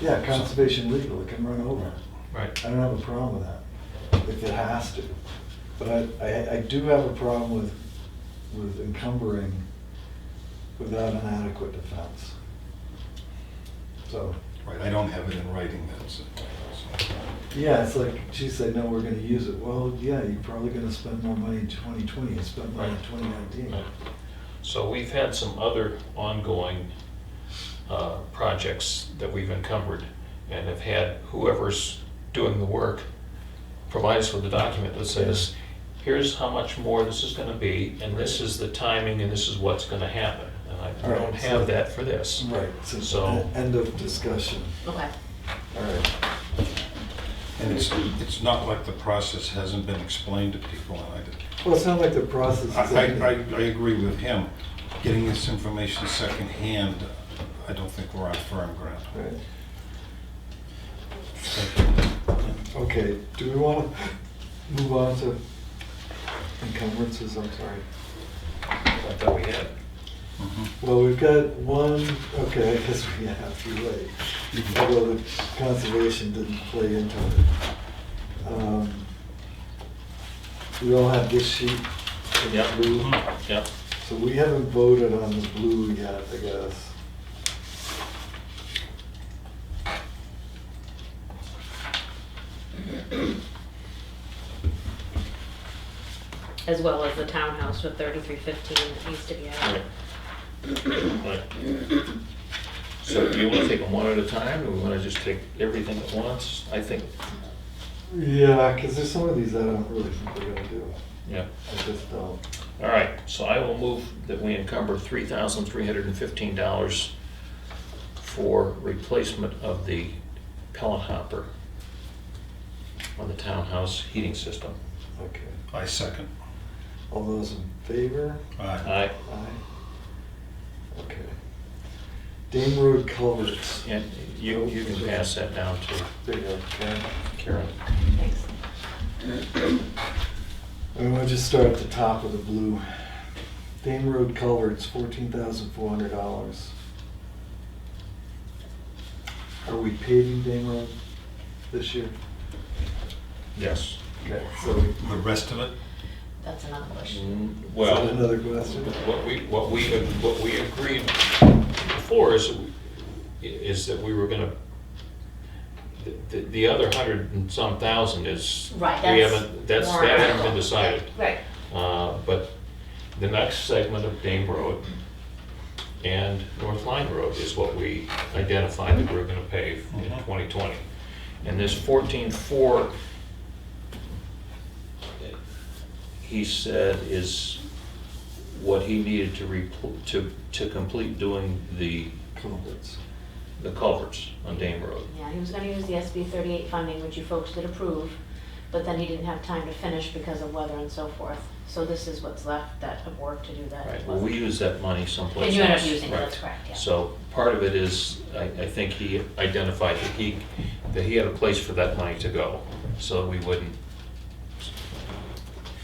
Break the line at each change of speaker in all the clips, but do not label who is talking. Yeah, conservation legal, it can run over.
Right.
I don't have a problem with that, if it has to. But I, I, I do have a problem with, with encumbering without an adequate defense. So,
Right, I don't have it in writing, that's, so,
yeah, it's like, she said, no, we're gonna use it. Well, yeah, you're probably gonna spend more money in twenty twenty, you spent money in
Right.
twenty nineteen.
So we've had some other ongoing uh, projects that we've encumbered and have had whoever's doing the work provide us with a document that says, here's how much more this is gonna be, and this is the timing, and this is what's gonna happen. And I
Alright,
don't
so-
have that for this.
Right, so,
So-
end of discussion.
Okay.
All right.
and it's, it's not like the process hasn't been explained to people, and I did.
Well, it's not like the process is.
I, I, I agree with him. Getting this information secondhand, I don't think we're on firm ground.
Right.
Thank you.
Okay, do we want to move on to encumbrances, I'm sorry?
I thought we had.
Mhm.
Well, we've got one, okay, I guess we have to wait, although the conservation didn't play into it. Um, We all have this sheet in blue,
Mhm. Yep.
so we haven't voted on the blue yet, I guess.
As well as the townhouse with thirty-three fifteen that needs to be added.
Right. So do you wanna take them one at a time, or we wanna just take everything at once? I think,
Yeah, because there's some of these I don't really think we're gonna do,
yeah.
I just don't.
All right, so I will move that we encumber three thousand three hundred and fifteen dollars for replacement of the pellet hopper on the townhouse heating system.
Okay,
I second.
all those in favor?
Aye.
Aye,
Aye. Okay. Dame Road culverts.
and you, you can pass that down to
There you go, Karen.
Karen.
Thanks.
And we'll just start at the top of the blue. Dame Road culverts, fourteen thousand four hundred dollars. Are we paving Dame Road this year?
Yes.
Okay, so.
The rest of it?
That's another question.
Mm,
Is
Well.
that Another question?
What we, what we, what we agreed before is, is that we were gonna, the, the other hundred and some thousand is.
Right,
We
that's
haven't, that's,
warrant
that hasn't been
article.
decided.
Right.
Uh, But the next segment of Dame Road and North Line Road is what we identified that we we're gonna pave in
Mhm.
2020. And this 14.4, he said is what he needed to repl- to, to complete doing the,
Culverts.
the culverts on Dame Road.
Yeah, he was gonna use the SB thirty-eight funding, which you folks did approve, but then he didn't have time to finish because of weather and so forth. So this is what's left that of work to do that.
Right, well, we use that money someplace else.
And you ended up using it,
Right.
that's correct, yeah.
So part of it is, I, I think he identified that he, that he had a place for that money to go, so we wouldn't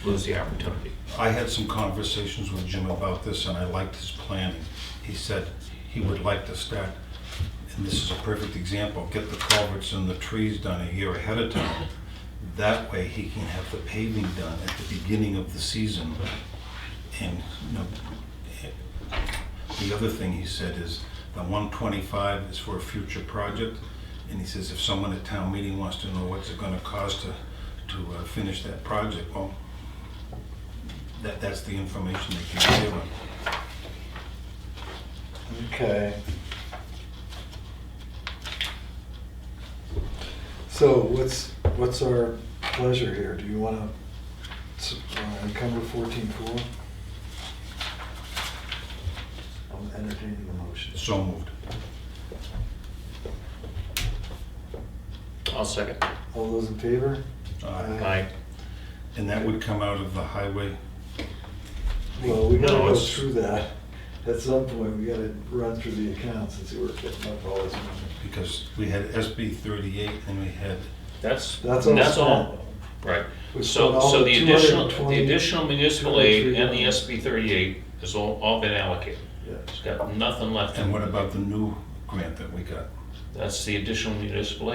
lose the opportunity.
I had some conversations with Jim about this, and I liked his planning. He said he would like to start, and this is a perfect example, get the culverts and the trees done a year ahead of time. That way, he can have the paving done at the beginning of the season. And, you know, the other thing he said is, the 125 is for a future project, and he says if someone at town meeting wants to know what's it gonna cost to, to uh, finish that project, well, that, that's the information they can give them.
Okay. So what's, what's our pleasure here? Do you want to encumber fourteen four? I'm entertaining the motion.
So moved.
I'll second.
All those in favor?
Uh,
Aye.
And that would come out of the highway,
Well, we gotta
No,
go
it's-
through that. At some point, we gotta run through the accounts and see where we're getting up all this money.
because we had SB 38 and we had,
That's,
That's all
that's
spent.
all, right.
We spent
So,
all
so
the
the additional, the
220
additional municipal aid and the
203.
SB thirty-eight has all, all been allocated.
Yeah.
It's got nothing left.
and what about the new grant that we got?
That's the additional municipal